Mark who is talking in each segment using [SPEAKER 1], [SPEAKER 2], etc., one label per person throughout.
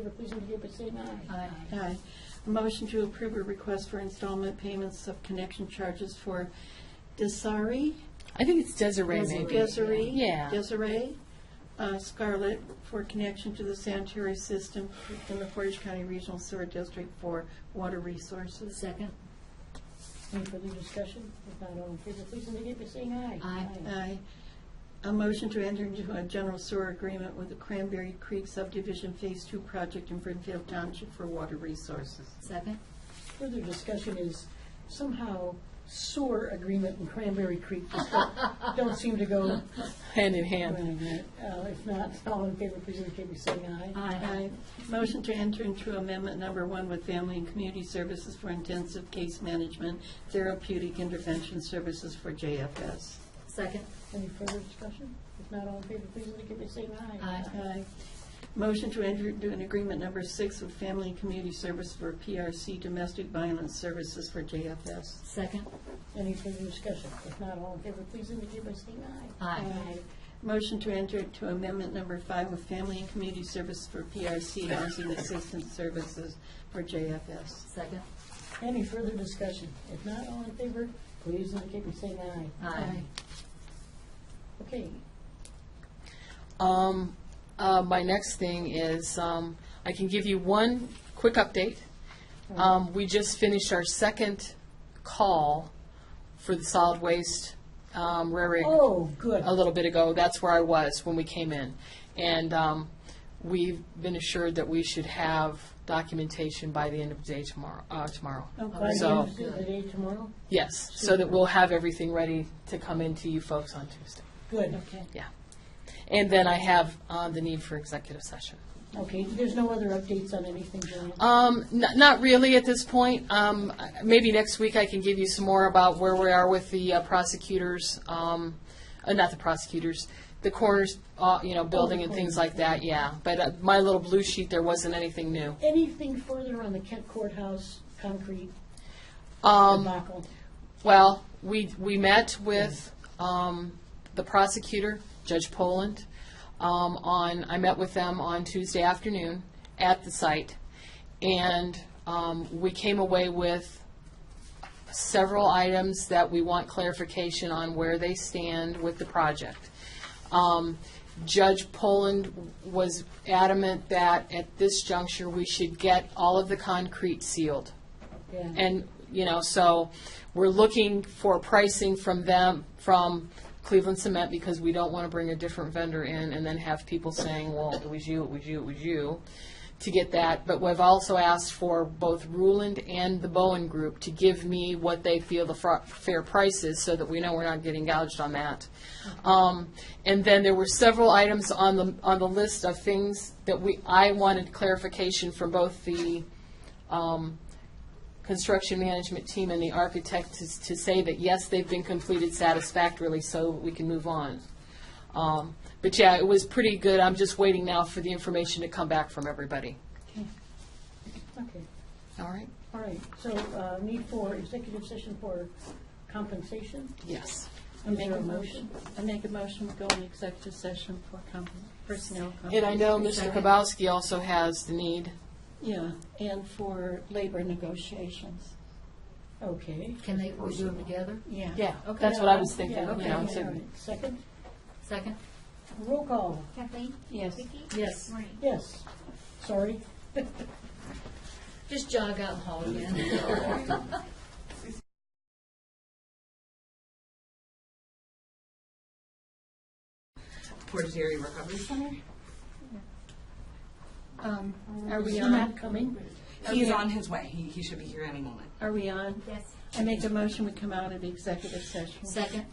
[SPEAKER 1] please indicate by saying aye.
[SPEAKER 2] Aye.
[SPEAKER 3] Aye. A Motion to approve a request for installment payments of connection charges for Desari,
[SPEAKER 4] I think it's Desiree maybe.
[SPEAKER 3] Desiree.
[SPEAKER 4] Yeah.
[SPEAKER 3] Desiree uh, Scarlett for connection to the sanitary system in the Portage County Regional Sewer District for water resources.
[SPEAKER 2] Second.
[SPEAKER 1] Any further discussion? If not, all in favor, please indicate by saying aye.
[SPEAKER 2] Aye.
[SPEAKER 3] Aye. A motion to enter into a general sewer agreement with the Cranberry Creek Subdivision Phase Two project in Brimfield Township for water resources.
[SPEAKER 2] Second.
[SPEAKER 1] Further discussion is somehow sewer agreement and Cranberry Creek just don't- don't seem to go.
[SPEAKER 4] Hand in
[SPEAKER 1] Uh,
[SPEAKER 4] hand.
[SPEAKER 1] If not, all in favor, please indicate by saying aye.
[SPEAKER 3] Aye. Motion to enter into amendment number one with Family and Community Services for Intensive Case Management Therapeutic Intervention Services for JFS.
[SPEAKER 2] Second.
[SPEAKER 1] Any further discussion? If not, all in favor, please indicate by saying aye.
[SPEAKER 2] Aye.
[SPEAKER 3] Aye. Motion to enter into an agreement number six with Family and Community Service for PRC Domestic Violence Services for JFS.
[SPEAKER 2] Second.
[SPEAKER 1] Any further discussion? If not, all in favor, please indicate by saying aye.
[SPEAKER 2] Aye.
[SPEAKER 3] Motion to enter into amendment number five with Family and Community Service for PRC Housing Assistance Services for JFS.
[SPEAKER 2] Second.
[SPEAKER 1] Any further discussion? If not, all in favor, please indicate by saying aye.
[SPEAKER 2] Aye.
[SPEAKER 1] Okay,
[SPEAKER 4] Um, uh, my next thing is, um, I can give you one quick update. Um, we just finished our second call for the solid waste, um, rare earth
[SPEAKER 1] oh, good.
[SPEAKER 4] a little bit ago. That's where I was when we came in. And um, we've been assured that we should have documentation by the end of the day tomorrow. Uh, tomorrow.
[SPEAKER 1] By the
[SPEAKER 4] So-
[SPEAKER 1] end of the day tomorrow?
[SPEAKER 4] Yes, so that we'll have everything ready to come in to you folks on Tuesday.
[SPEAKER 1] Good.
[SPEAKER 3] Okay.
[SPEAKER 4] Yeah. And then I have uh, the need for executive session.
[SPEAKER 1] Okay, there's no other updates on anything, Joanne?
[SPEAKER 4] Um, n- not really at this point. Um, I- maybe next week I can give you some more about where we are with the uh, prosecutors, um, uh, not the prosecutors, the coroner's, uh, you know, building and things like that, yeah. But uh, my little blue sheet, there wasn't anything new.
[SPEAKER 1] Anything further on the Kent Courthouse concrete
[SPEAKER 4] Um,
[SPEAKER 1] debacle?
[SPEAKER 4] Well, we, we met with um, the prosecutor, Judge Poland, um, on, I met with them on Tuesday afternoon at the site, and um, we came away with several items that we want clarification on where they stand with the project. Um, Judge Poland was adamant that at this juncture, we should get all of the concrete sealed.
[SPEAKER 1] Yeah,
[SPEAKER 4] And, you know, so we're looking for pricing from them, from Cleveland Cement, because we don't want to bring a different vendor in and then have people saying, well, it was you, it was you, it was you, to get that. But we've also asked for both Ruland and the Bowen Group to give me what they feel the fr- fair price is so that we know we're not getting gouged on that. Um, And then there were several items on the, on the list of things that we, I wanted clarification from both the construction management team and the architect to, to say that, yes, they've been completed satisfactorily, so we can move on. Um, But yeah, it was pretty good. I'm just waiting now for the information to come back from everybody.
[SPEAKER 1] okay,
[SPEAKER 4] All right?
[SPEAKER 1] all right. So uh, need for executive session for compensation?
[SPEAKER 4] Yes.
[SPEAKER 1] Is
[SPEAKER 3] Make
[SPEAKER 1] there
[SPEAKER 3] a
[SPEAKER 1] a motion?
[SPEAKER 3] I make a motion to go into executive session for com- personnel.
[SPEAKER 4] And I know
[SPEAKER 3] compensation.
[SPEAKER 4] Mr. Kabowski also has the need.
[SPEAKER 3] Yeah, and for labor negotiations.
[SPEAKER 1] Okay.
[SPEAKER 2] Can they, we do them together?
[SPEAKER 3] Yeah.
[SPEAKER 4] Yeah,
[SPEAKER 2] Okay.
[SPEAKER 4] that's what I was thinking,
[SPEAKER 1] Yeah,
[SPEAKER 4] you
[SPEAKER 1] okay,
[SPEAKER 4] know,
[SPEAKER 1] all
[SPEAKER 4] so-
[SPEAKER 1] right. Second,
[SPEAKER 2] Second?
[SPEAKER 1] roll call,
[SPEAKER 5] Kathleen?
[SPEAKER 3] Yes.
[SPEAKER 5] Vicki?
[SPEAKER 2] Yes.
[SPEAKER 5] Maureen?
[SPEAKER 1] yes. Sorry.
[SPEAKER 2] Just jog out and haul again.
[SPEAKER 6] Portage Area Recovery Center.
[SPEAKER 3] Um, Are we
[SPEAKER 1] Is
[SPEAKER 3] on?
[SPEAKER 1] Matt coming?
[SPEAKER 6] He's on his way. He, he should be here any moment.
[SPEAKER 3] Are we on?
[SPEAKER 5] Yes.
[SPEAKER 3] I make a motion we come out of executive session.
[SPEAKER 2] Second?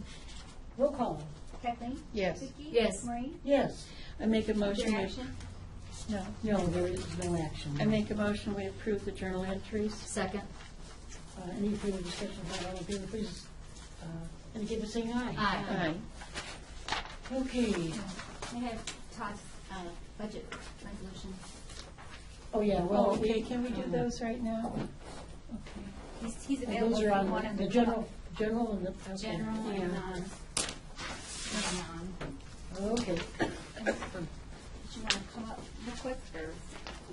[SPEAKER 1] Roll call,
[SPEAKER 5] Kathleen?
[SPEAKER 3] Yes.
[SPEAKER 5] Vicki?
[SPEAKER 2] Yes.
[SPEAKER 5] Maureen?
[SPEAKER 1] yes.
[SPEAKER 3] I make a motion.
[SPEAKER 5] Your
[SPEAKER 3] we-
[SPEAKER 5] action?
[SPEAKER 3] No.
[SPEAKER 1] No, there is no action.
[SPEAKER 3] I make a motion we approve the journal entries.
[SPEAKER 2] Second?
[SPEAKER 1] Uh, Any further discussion, If not all in favor, please uh, indicate by saying aye.
[SPEAKER 5] Uh,
[SPEAKER 3] Aye.
[SPEAKER 2] Aye.
[SPEAKER 1] Okay,
[SPEAKER 5] I have Todd's uh, budget resolution.
[SPEAKER 1] oh, yeah, well,
[SPEAKER 3] Oh, okay,
[SPEAKER 1] we-
[SPEAKER 3] can we do those right now?
[SPEAKER 5] He's, he's available
[SPEAKER 1] those
[SPEAKER 5] if you
[SPEAKER 1] are
[SPEAKER 5] want
[SPEAKER 1] on
[SPEAKER 5] him
[SPEAKER 1] the
[SPEAKER 5] to.
[SPEAKER 1] general, general and the. okay.
[SPEAKER 5] General and,
[SPEAKER 3] Yeah.
[SPEAKER 5] um, non.
[SPEAKER 1] Okay,
[SPEAKER 5] Did you want to come up real quick or?